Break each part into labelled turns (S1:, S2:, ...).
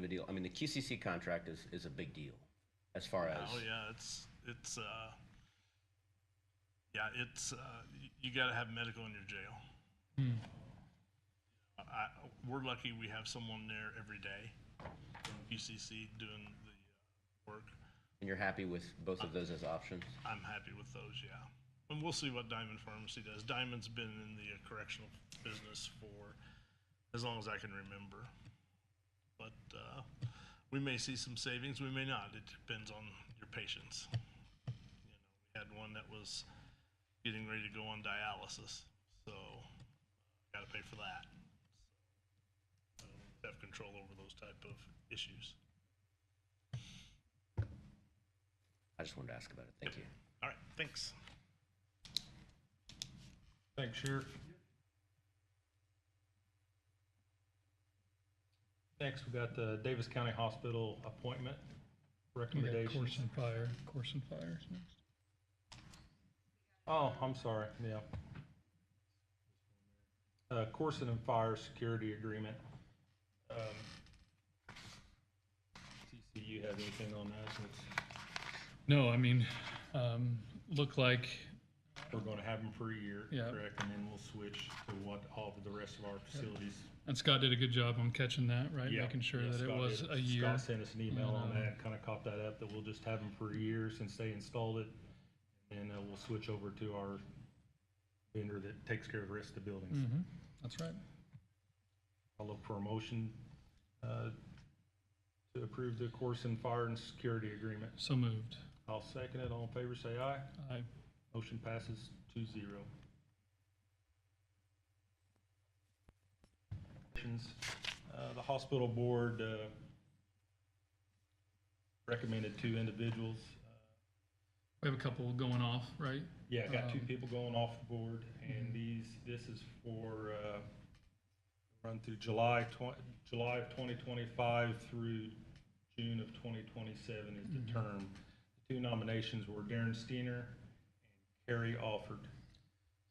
S1: deal. I mean, the QCC contract is, is a big deal as far as,
S2: Oh yeah, it's it's uh, yeah, it's uh, y- you got to have medical in your jail. I, we're lucky we have someone there every day, from UCC doing the uh, work.
S1: and you're happy with both of those as options?
S2: I'm happy with those, yeah. And we'll see what Diamond Pharmacy does. Diamond's been in the uh, correctional business for as long as I can remember. But uh, we may see some savings, we may not. It depends on your patients. You know, we had one that was getting ready to go on dialysis, so got to pay for that. So, have control over those type of issues.
S1: I just wanted to ask about it. Thank you.
S2: All right, thanks.
S3: Thanks, Sheriff. Next, we got the Davis County Hospital appointment
S4: We got
S3: recommendations.
S4: Course and Fire, Course and Fire is next.
S3: Oh, I'm sorry, yeah. Uh, Corson and Fire Security Agreement. Um, TC, you have anything on that since
S4: No, I mean, um, look like,
S3: we're gonna have them for a year,
S4: Yeah.
S3: correct? And then we'll switch to what all of the rest of our facilities.
S4: and Scott did a good job on catching that, right?
S3: Yeah,
S4: Making sure
S3: yeah,
S4: that it
S3: Scott
S4: was
S3: did.
S4: a year.
S3: Scott sent us an email on
S4: And, uh,
S3: that, kinda caught that up, that we'll just have them for a year since they installed it. And uh, we'll switch over to our vendor that takes care of the rest of the buildings.
S4: Mhm, That's right.
S3: I'll look for a motion, uh, to approve the course and fire and security agreement.
S4: So moved.
S3: I'll second it. All in favor, say aye.
S4: Aye.
S3: Motion passes two zero. Uh, the hospital board, uh, recommended two individuals. Uh,
S4: We have a couple going off, right?
S3: Yeah, got two
S4: Um,
S3: people going off the board and these, this is for, uh, run through July twen- July of twenty twenty-five through June of twenty twenty-seven is the term. The Two nominations were Darren Steiner and Carrie Alford.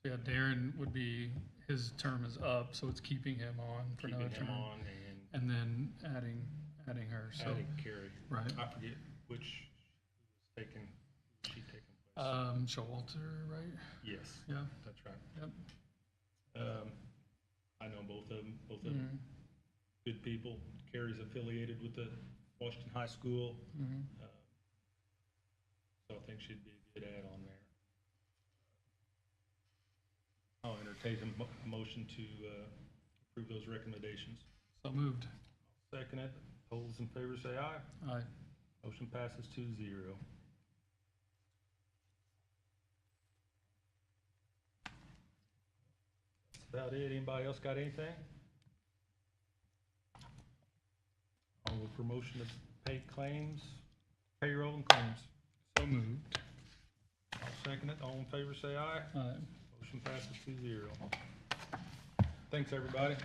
S4: Yeah, Darren would be, his term is up, so it's keeping him on for another
S3: keeping him
S4: term.
S3: on and
S4: And then adding, adding her, so,
S3: adding Carrie.
S4: right.
S3: I forget which was taken, she taken place.
S4: Um, Showalter, right?
S3: Yes,
S4: Yeah,
S3: that's right.
S4: yep.
S3: Um, I know both of them, both of them good people. Carrie's affiliated with the Washington High School.
S4: Mhm.
S3: uh, So I think she'd be a good add-on there. Uh, I'll entertain a mo- motion to uh, approve those recommendations.
S4: So moved.
S3: Second it. All those in favor say aye.
S4: Aye.
S3: Motion passes two zero. That's about it. Anybody else got anything? On with promotion to pay claims, payroll and claims.
S4: So moved.
S3: I'll second it. All in favor, say aye.
S4: Aye.
S3: Motion passes two zero. Thanks, everybody.